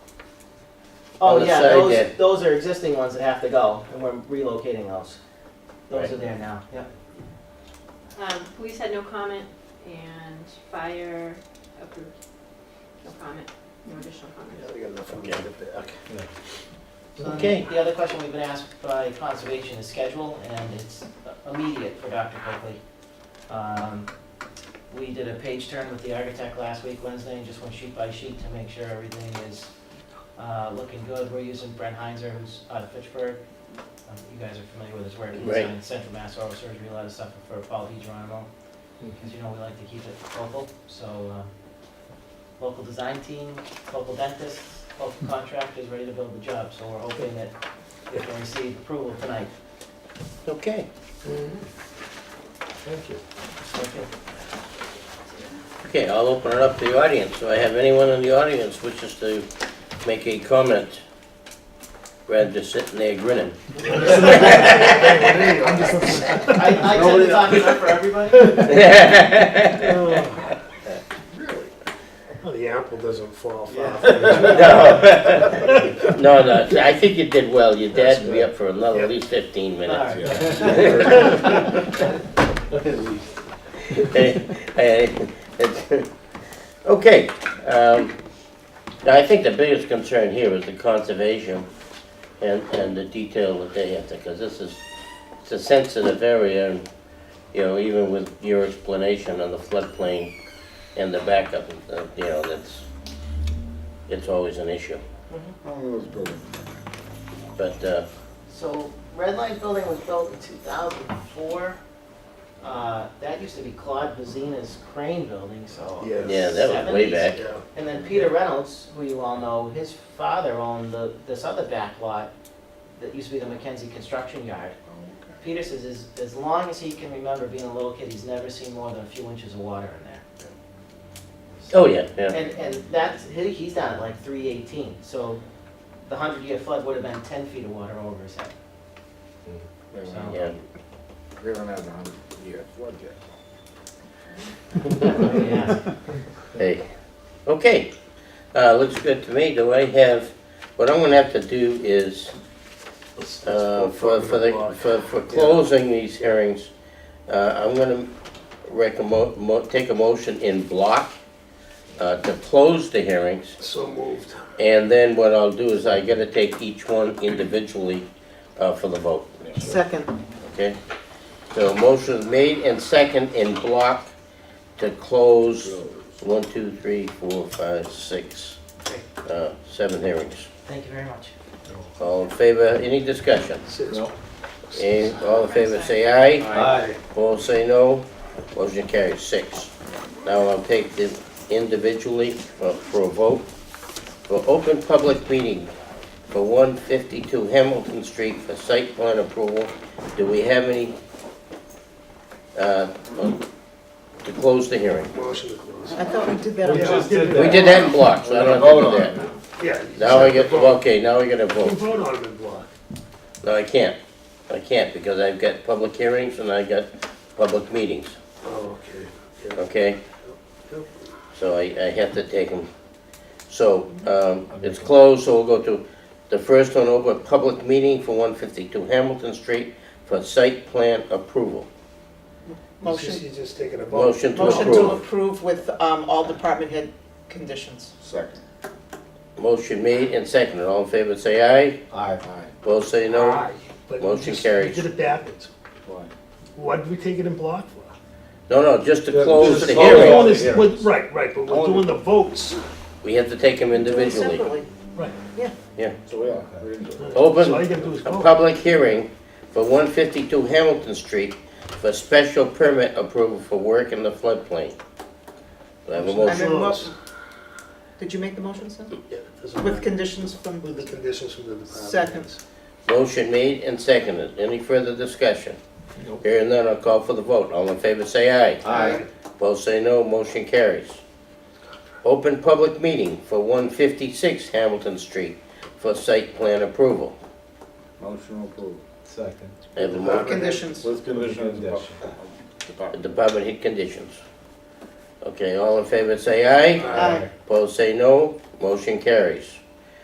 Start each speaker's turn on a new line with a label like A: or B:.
A: Oh,
B: the
A: yeah,
B: side
A: those,
B: there.
A: those are existing ones that have to go, and we're relocating those. Those
B: Right.
A: are there now, yeah.
C: Um, police had no comment and fire approved. No comment, no additional comments.
D: Yeah, we got enough.
B: Okay.
D: Okay.
B: Okay.
A: The other question we've been asked by conservation is schedule, and it's immediate for Dr. Coakley. Um, We did a page turn with the architect last week, Wednesday, and just went sheet by sheet to make sure everything is uh, looking good. We're using Brent Heinzer, who's out of Fitchburg. Um, You guys are familiar with his work, he's
B: Right.
A: in Central Mass Oral Surgery, a lot of stuff for Paul DiGeronimo. Because you know, we like to keep it local, so uh, local design team, local dentists, local contractors ready to build the job. So we're hoping that we can receive approval tonight.
B: Okay.
D: Thank you.
B: Okay, I'll open it up to the audience. Do I have anyone in the audience wishes to make a comment? Brad just sitting there grinning.
D: I'm just listening.
A: I, I tend to talk enough for everybody.
D: Really? Well, the apple doesn't fall
A: Yeah.
D: far from the tree.
B: No, no, no, I think you did well. Your
D: That's
B: dad would be
D: good.
B: up for another
D: Yeah.
B: at least fifteen minutes.
A: All right.
B: Hey, hey, it's- Okay, um, now I think the biggest concern here is the conservation and, and the detail that they have to, because this is, it's a sensitive area, and, you know, even with your explanation on the floodplain and the backup, uh, you know, that's, it's always an issue, but, uh,
A: So Red Line Building was built in 2004. Uh, That used to be Claude Bazina's Crane Building, so.
D: Yes.
B: yeah, that was way
A: 70s.
B: back.
D: Yeah.
A: And then Peter Reynolds, who you all know, his father owned the, this other back lot that used to be the Mackenzie Construction Yard. Peter says, as, as long as he can remember being a little kid, he's never seen more than a few inches of water in there.
B: Oh, yeah, yeah,
A: And, and that's, he, he's down at like three eighteen, so the hundred year flood would have been ten feet of water over his head. So-
B: yeah.
D: They don't have a hundred year flood yet.
A: Yeah.
B: Hey, okay, uh, looks good to me, do I have, what I'm gonna have to do is, uh, for, for the, for, for closing these hearings, uh, I'm gonna recommend, mo, take a motion in block, uh, to close the hearings,
D: So moved.
B: and then what I'll do is I gotta take each one individually, uh, for the vote,
A: Second.
B: okay? So motion made and second in block to close one, two, three, four, five, six, uh, seven hearings.
A: Thank you very much.
B: All in favor, any discussion?
D: Six.
B: Eh, All in favor, say aye.
D: Aye.
B: Opposed, say no. Motion carries six. Now I'll take them individually for for a vote. For open public meeting for 152 Hamilton Street for site plan approval, do we have any, uh, to close the hearing?
D: Motion to close.
E: I thought we did that
F: We
E: on
F: just
E: Tuesday.
F: did that.
B: We did that in blocks, so I don't have to do that.
D: Yeah.
B: Now I get, okay, now we gotta
D: You
B: vote.
D: vote on it in block.
B: No, I can't. I can't because I've got public hearings and I got public meetings,
D: Oh, okay. Yeah.
B: okay? So I, I have to take them. So, um, it's closed, so we'll go to the first one over, public meeting for one fifty-two Hamilton Street for site plan approval.
E: Motion-
D: She's just taking a vote.
B: Motion to
E: Motion to
B: approve.
E: approve with um, all department head conditions.
F: Second.
B: Motion made and seconded. All in favor, say aye.
F: Aye. Aye.
B: Both say no.
D: Aye. But we
B: Motion
D: just-
B: carries.
D: We did it backwards.
F: Why?
D: What did we take it in block for?
B: No, no, just to
F: Yeah,
B: close
F: just
B: the
F: to close.
D: We're
B: hearing.
D: doing this-
F: Yeah.
D: we're- Right, right, but we're doing the votes.
B: We have to take them individually.
E: Separately.
D: Right.
F: So, yeah, we didn't do it.
B: Open.
D: So all you gotta do is
B: A
D: vote.
B: public hearing for 152 Hamilton Street for special permit approval for work in the floodplain. Do I have a
E: I
B: motion?
E: make a
D: Close.
E: motion. Did you make the motion, sir?
D: Yeah, doesn't
E: With
D: matter.
E: conditions from,
D: With the conditions from the department.
E: Second.
D: heads.
B: Motion made and seconded. Any further discussion?
F: Nope.
B: Hearing none, I'll call for the vote. All in favor, say aye.
F: Aye.
B: Opposed, say no. Motion carries. Open public meeting for 156 Hamilton Street for site plan approval.
F: Motion approved. Second.
B: I have a mo-
E: conditions.
F: With conditions.
B: Department hit conditions. Okay, all in favor, say aye. Opposed, say no. Motion carries.